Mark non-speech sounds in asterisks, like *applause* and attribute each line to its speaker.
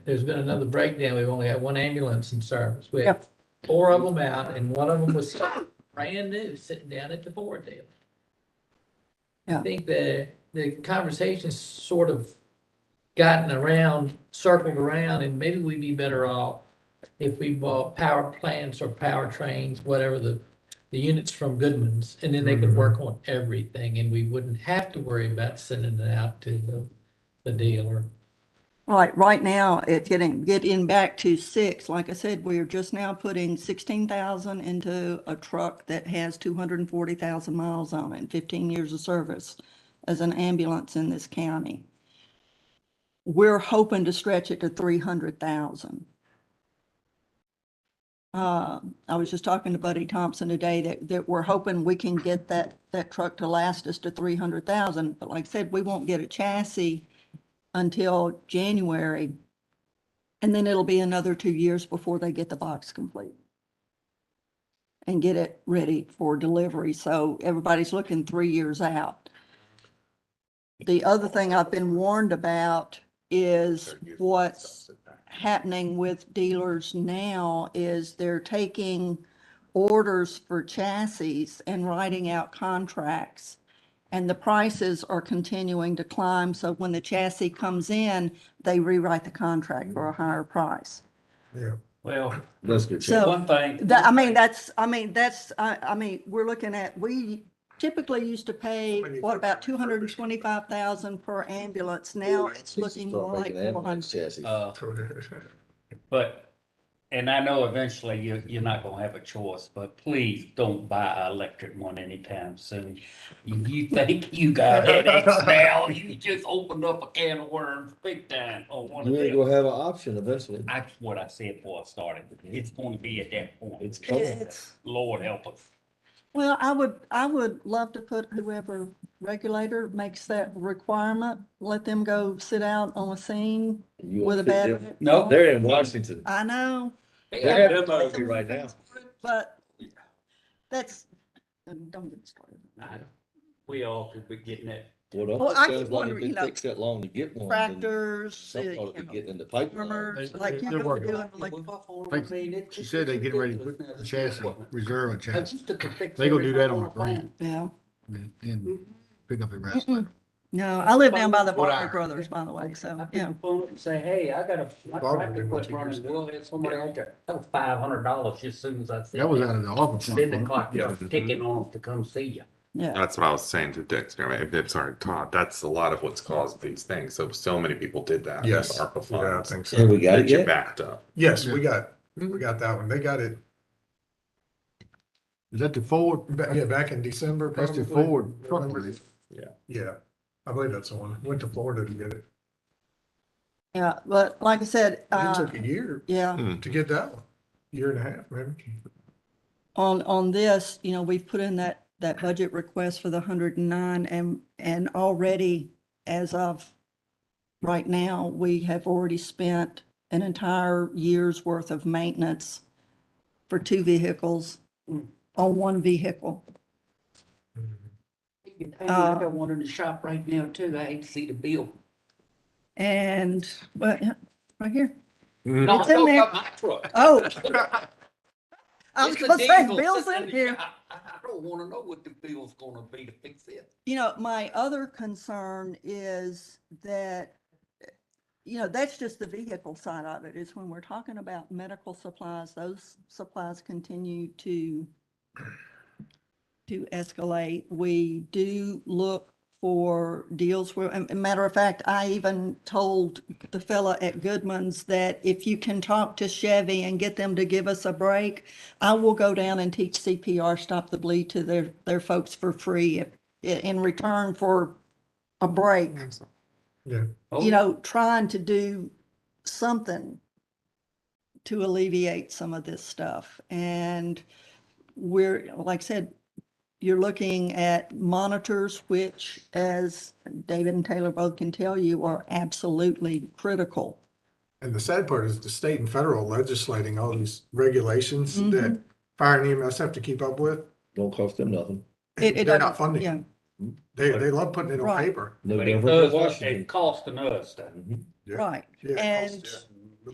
Speaker 1: there's been another breakdown. We've only had one ambulance in service. We had
Speaker 2: Yep.
Speaker 1: four of them out and one of them was brand new, sitting down at the board table. I
Speaker 2: Yeah.
Speaker 1: think the, the conversation's sort of gotten around, circled around, and maybe we'd be better off if we bought power plants or power trains, whatever the, the units from Goodman's, and then they
Speaker 2: Mm-hmm.
Speaker 1: could work on everything, and we wouldn't have to worry about sending it out to the, the dealer.
Speaker 2: Right, right now, it's getting, getting back to six, like I said, we are just now putting sixteen thousand into a truck that has two hundred and forty thousand miles on it and fifteen years of service as an ambulance in this county. We're hoping to stretch it to three hundred thousand. Uh, I was just talking to Buddy Thompson today that, that we're hoping we can get that, that truck to last us to three hundred thousand, but like I said, we won't get a chassis until January. And then it'll be another two years before they get the box complete and get it ready for delivery. So everybody's looking three years out. The other thing I've been warned about is what's happening with dealers now is they're taking orders for chassis and writing out contracts. And the prices are continuing to climb, so when the chassis comes in, they rewrite the contract for a higher price.
Speaker 3: Well,
Speaker 4: Let's get
Speaker 2: So-
Speaker 3: one thing,
Speaker 2: That, I mean, that's, I mean, that's, I, I mean, we're looking at, we typically used to pay, what, about two hundred and twenty-five thousand per ambulance. Now it's looking more like four hundred.
Speaker 3: uh, but, and I know eventually you, you're not gonna have a choice, but please don't buy an electric one anytime soon. If You think you got headaches now, you just opened up a can of worms big time on one of
Speaker 4: You ain't
Speaker 3: them.
Speaker 4: gonna have an option eventually.
Speaker 3: That's what I said before I started. It's gonna be at that point.
Speaker 4: It's coming.
Speaker 2: It's-
Speaker 3: Lord help us.
Speaker 2: Well, I would, I would love to put whoever regulator makes that requirement, let them go sit out on a scene
Speaker 4: You
Speaker 2: with a
Speaker 4: will fit them.
Speaker 2: bat.
Speaker 3: No.
Speaker 4: They're in Washington.
Speaker 2: I know,
Speaker 4: They're having therapy right now.
Speaker 2: but that's, don't get me started.
Speaker 3: I- We all could be getting it.
Speaker 4: What
Speaker 2: Well,
Speaker 4: I'm
Speaker 2: I
Speaker 4: saying
Speaker 2: keep
Speaker 4: is like, if
Speaker 2: wondering, you
Speaker 4: it
Speaker 2: know,
Speaker 4: takes that long to get one, then
Speaker 2: Tractors, uh,
Speaker 4: something ought to
Speaker 2: you
Speaker 4: be
Speaker 2: know,
Speaker 4: getting in the pipeline.
Speaker 2: farmers,
Speaker 5: They-
Speaker 2: like
Speaker 5: they-
Speaker 2: you
Speaker 5: they're
Speaker 2: could be
Speaker 5: working
Speaker 2: doing like.
Speaker 5: Like, She said they getting ready to put the chassis, reserve a chassis,
Speaker 1: They
Speaker 5: They gonna do that on the ground.
Speaker 2: Yeah,
Speaker 5: and then pick up the rest.
Speaker 2: Mm-mm. *laughs* no, I live down by the
Speaker 5: What
Speaker 2: Barker
Speaker 5: I-
Speaker 2: Brothers, by the way, so,
Speaker 3: *laughs* I pick
Speaker 2: yeah.
Speaker 3: the phone up and say, hey, I got a, my
Speaker 5: Barbara
Speaker 3: tractor
Speaker 5: did what
Speaker 3: quit
Speaker 5: you
Speaker 3: running,
Speaker 5: just
Speaker 3: we'll have somebody out there. That was five hundred dollars just as soon as I said.
Speaker 5: That was out of the office.
Speaker 3: Then the clock started
Speaker 5: Yeah.
Speaker 3: ticking on to come see you.
Speaker 2: Yeah,
Speaker 6: That's what I was saying to Dexter, I mean, sorry, Todd, that's a lot of what's caused these things. So, so many people did that. with
Speaker 7: Yes.
Speaker 6: ARPA
Speaker 7: Yeah, I
Speaker 6: funds.
Speaker 7: think
Speaker 4: And
Speaker 7: so.
Speaker 4: we got
Speaker 6: They
Speaker 4: it
Speaker 6: get
Speaker 4: yet?
Speaker 6: backed up.
Speaker 7: Yes, we got, we got that one. They got it,
Speaker 5: Is that the Ford?
Speaker 7: ba- yeah, back in December.
Speaker 5: That's the
Speaker 7: probably.
Speaker 5: Ford truck.
Speaker 7: November.
Speaker 5: release.
Speaker 7: Yeah, I believe that's the one. Went to Florida to get it.
Speaker 2: yeah, but like I said,
Speaker 7: It
Speaker 2: uh,
Speaker 7: took a year
Speaker 2: yeah.
Speaker 7: to get that one, year and a half, maybe.
Speaker 2: on, on this, you know, we've put in that, that budget request for the hundred and nine and, and already as of right now, we have already spent an entire year's worth of maintenance for two vehicles on one vehicle.
Speaker 3: I
Speaker 2: Uh,
Speaker 3: got one in the shop right now too. I hate to see the bill.
Speaker 2: And, well, yeah, right here.
Speaker 3: No,
Speaker 2: It's
Speaker 3: I
Speaker 2: in
Speaker 3: know
Speaker 2: there.
Speaker 3: about my truck. *laughs*
Speaker 2: Oh. I was
Speaker 3: It's a
Speaker 2: gonna say,
Speaker 3: diesel
Speaker 2: Bill's
Speaker 3: sitting
Speaker 2: in here.
Speaker 3: I, I I don't wanna know what the bill's gonna be to fix it.
Speaker 2: You know, my other concern is that, you know, that's just the vehicle side of it, is when we're talking about medical supplies, those supplies continue to to escalate. We do look for deals where, and- and matter of fact, I even told the fella at Goodman's that if you can talk to Chevy and get them to give us a break, I will go down and teach CPR, stop the bleed to their, their folks for free if in, in return for a break,
Speaker 7: Yeah.
Speaker 3: Oh,
Speaker 2: you know, trying to do something to alleviate some of this stuff. And we're, like I said, you're looking at monitors, which as David and Taylor both can tell you are absolutely critical.
Speaker 7: And the sad part is the state and federal legislating all these regulations
Speaker 2: Mhm.
Speaker 7: that fire and EMS have to keep up with.
Speaker 4: Don't cost them nothing.
Speaker 2: It- it
Speaker 7: They're
Speaker 2: doesn't-
Speaker 7: not funding.
Speaker 2: Yeah,
Speaker 7: it. They, they love putting it on
Speaker 2: Right.
Speaker 7: paper.
Speaker 4: No
Speaker 3: But it
Speaker 4: different than
Speaker 3: does,
Speaker 4: Washington.
Speaker 3: it costing us. though.
Speaker 4: Mhm.
Speaker 7: Yeah.
Speaker 2: right.
Speaker 7: Yeah, it
Speaker 2: And
Speaker 7: costs,